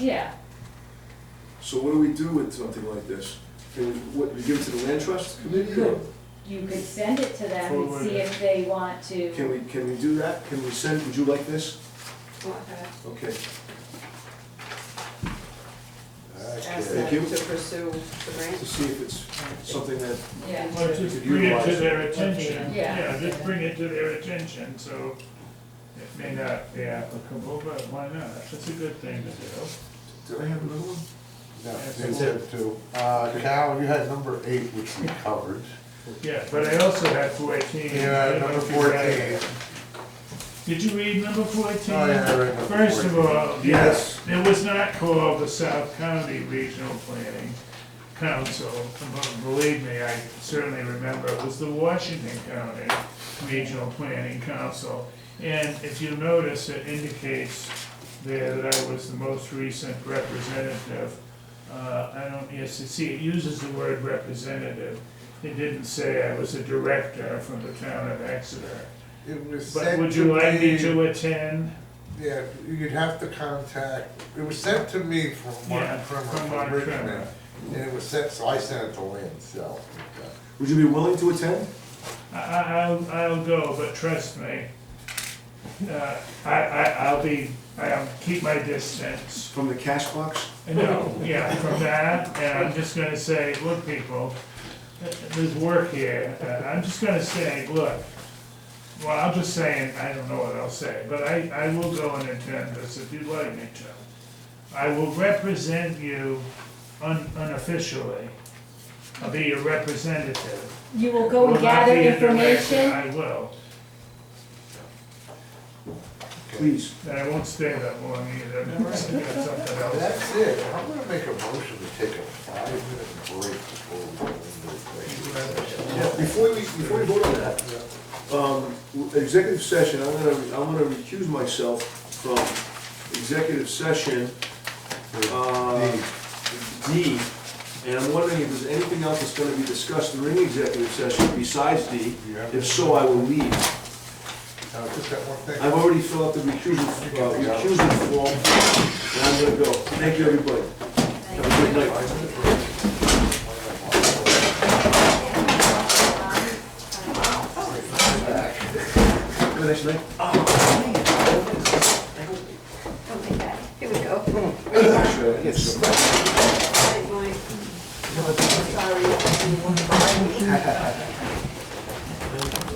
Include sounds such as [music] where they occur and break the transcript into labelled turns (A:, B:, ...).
A: Yeah,
B: So what do we do with something like this? Can we, what, we give it to the land trust committee? or-
A: Good. you could send it to them and see if they want to.
B: Can we, can we do that? Can we send, would you like this?
C: Want to
B: Okay,
C: ask
B: Thank
C: them
B: you.
C: to pursue the
B: to
C: grant?
B: see if it's something that,
A: Yeah,
D: Well, just bring it to their attention,
A: Yeah.
D: yeah, just bring it to their attention, so it may not be applicable, but why not? It's a good thing to do.
B: did I have another one?
E: No, they said two. Uh, Cal, you had number eight, which we covered.
D: Yeah, but I also had fourteen.
E: Yeah,
D: I don't
E: number
D: know if you read
E: fourteen.
D: it. Did you read number fourteen?
E: Oh, yeah, I read number
D: First of
E: 14.
D: all, yes, it was not called the South County Regional Planning Council. Believe me, I certainly remember, it was the Washington County Regional Planning Council. And if you notice, it indicates there that I was the most recent representative. Uh, I don't, yes, you see, it uses the word representative. It didn't say I was a director from the town of Exeter.
E: It was
D: But
E: sent
D: would
E: to
D: you like me
E: me,
D: to attend?
E: yeah, you'd have to contact, it was sent to me from
D: Yeah,
E: Martin Trimmer,
D: from
E: from
D: Martin Trimmer.
E: Richmond. And it was sent, so I sent it to Lynn, so.
B: Would you be willing to attend?
D: I, I- I'll, I'll go, but trust me, uh, I, I, I'll be, I'll keep my distance.
B: From the cash box?
E: [laughs]
D: No, yeah, from that, and I'm just gonna say, look, people, th- there's work here, and I'm just gonna say, look, well, I'm just saying, I don't know what I'll say, but I, I will go and attend this if you'd like me to. I will represent you un- unofficially. I'll be your representative.
A: you will go and
D: Will not
A: gather
D: be a director,
A: information,
D: I will.
B: Please.
D: And I won't stay that long either, [laughs] I got something else.
E: That's it. I'm gonna make a motion to take a five-minute break before we go into the executive session.
B: Yeah, before we, before we vote on that, um, executive session, I'm gonna, I'm gonna recuse myself from executive session, uh, D. And I'm wondering if there's anything else that's gonna be discussed during executive session besides D.
E: Yeah.
B: If so, I will leave.
E: Now, just that one thing.
B: I've already filled out the recusal, uh, recusal form, and I'm gonna go. Thank you, everybody. Have a good night. Have a nice night.
C: Okay, got it. Here we go. [laughs] Sorry.